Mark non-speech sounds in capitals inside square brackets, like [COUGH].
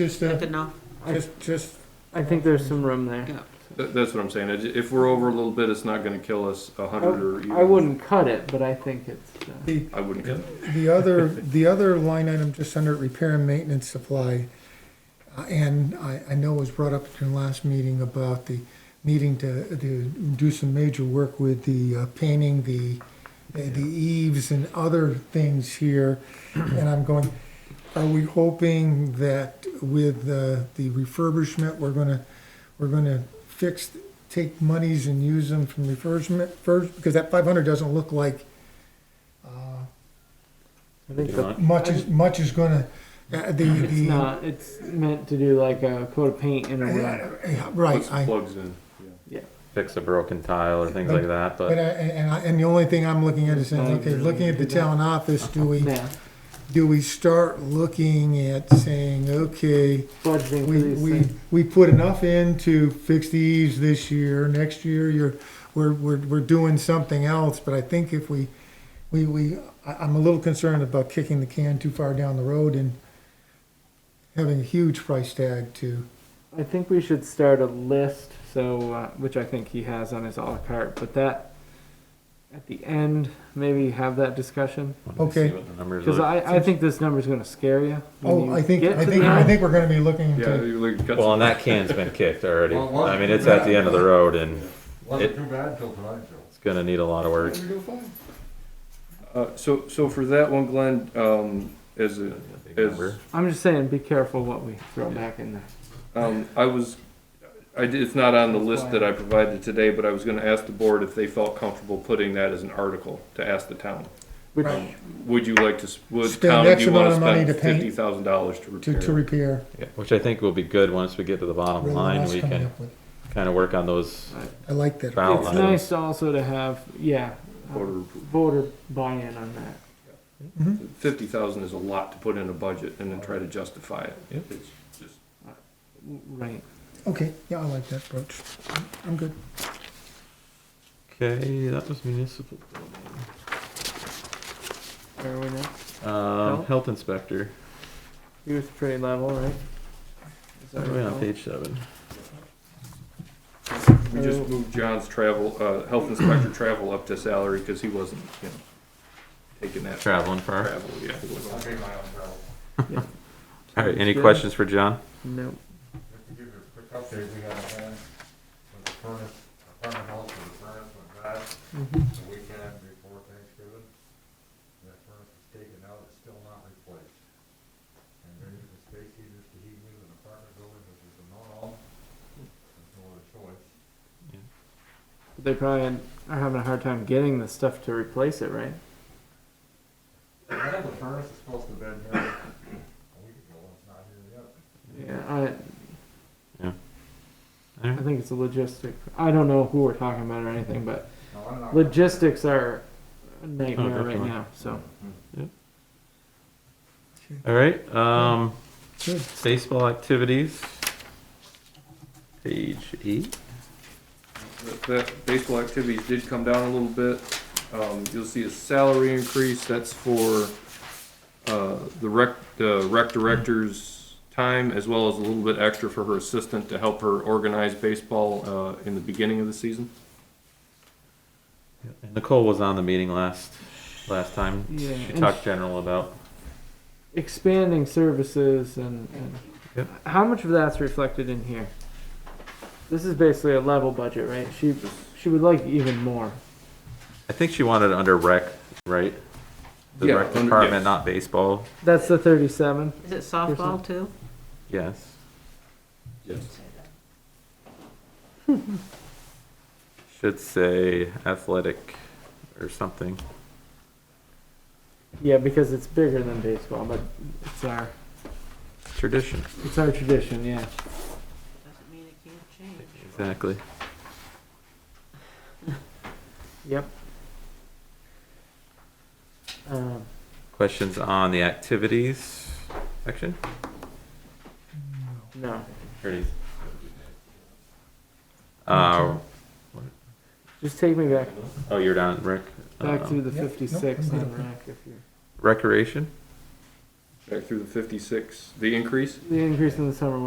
It's just, Good uh, enough? just, just, I think there's some room there. Yeah. That, that's what I'm saying. It- If we're over a little bit, it's not going to kill us a hundred or even. I wouldn't cut it, but I think it's. Uh, the, I wouldn't. cut it. the other, the other line item just under repair and maintenance supply. uh, And I, I know was brought up in the last meeting about the needing to, to do some major work with the uh, painting, the, the eaves and other things here. And I'm going, are we hoping that with the, the refurbishment, we're gonna, we're gonna fix, take monies and use them from refurbishment first? Because that five hundred doesn't look like I think the, much is, much is gonna, uh, the, it's the, not. It's meant to do like a coat of paint in a row. uh, yeah, Once right, it I, plugs in. yeah. fix a broken tile or things like that, but I, but and I, and the only thing I'm looking at is saying, okay, looking at the town office, do we, Yeah, do we start looking at saying, okay, budgeting for we, these we, things. we put enough in to fix the eaves this year, next year, you're, we're, we're, we're doing something else, but I think if we, we, we, I, I'm a little concerned about kicking the can too far down the road and having a huge price tag to, I think we should start a list. So, uh, which I think he has on his a la carte, but that at the end maybe have that discussion wanted to see okay. what the numbers because are. I, I think this number's going to scare you. when Oh, you I think, get I to think, the I end. think we're gonna be looking Yeah, to, you like cut Well, and that can's been kicked already. Well, one- I mean, it's at the end of the road and Wasn't It- too bad till tonight, Joe. it's gonna need a lot of work. uh, so, so for that one, Glenn, um, as a, Big Is- number. I'm just saying, be careful what we throw back in there. um, I was, I did, it's not on the list that I provided today, but I was going to ask the board if they felt comfortable putting that as an article to ask the town. Which Right. Would you like to, s- would Spend town, X do you want amount to of money spend to paint- fifty thousand dollars to repair? to, to repair. Yeah, Which I think will be good once we get to the bottom Really line, nice we coming can up with- kinda work on those. I like that. Wow. it's Outline. nice also to have yeah uh, Voter approval. voter buy-in on that. Fifty thousand is a lot to put in a budget and then try to justify it. Yep. It's just- Right. Okay, yeah, I like that approach. I'm good. Okay, that was municipal. Where are we now? Um, health inspector, He was pretty level, right? Is that Where are we on right? page seven. We just moved John's travel, uh, health inspector travel up to salary because he wasn't, you know, taking that Traveling far. travel, yeah. he wasn't. I made my own travel. All right, any Good. questions for John? No. Just to give you a quick update, we got a van with the furnace, a furnace house with a furnace went bad Mhm. the weekend before Thanksgiving. That furnace is taken out, it's still not replaced. And they're using space heaters to heat new an apartment building, which is a no-no. There's no other choice. But They probably are having a hard time getting the stuff to replace it, right? The man with the furnace is supposed to have been here [COUGHS] a week ago, it's not here yet. Yeah. I, All I right. think it's a logistic. I don't know who we're talking about or anything, but No, I'm not- logistics are a Oh, nightmare right definitely. now. So All right, um, Good. baseball activities. Page eight. That- That baseball activities did come down a little bit. Um, you'll see a salary increase, that's for, uh, the rec, the rec director's time as well as a little bit extra for her assistant to help her organize baseball, uh, in the beginning of the season. Nicole was on the meeting last, last time. Yeah, She and talked general about, expanding services and, and Yep. how much of that's reflected in here? This is basically a level budget, right? She she would like even more. I think she wanted it under rec, right? The Yeah, rec under- yes. department, not baseball, That's the thirty-seven. Is it softball too? yes. Yes. Should say athletic or something. Yeah, because it's bigger than baseball, but it's our Tradition, it's our tradition. Yeah. Doesn't mean it can't change. exactly. Yep. Um, Questions on the activities section? no, Here it is. Uh, just take me back oh, you're down, rec. back um, to the Yep, nope, fifty-six I'm good on with that. rack if you. Recreation? back through the fifty-six, the increase? The increase in the summer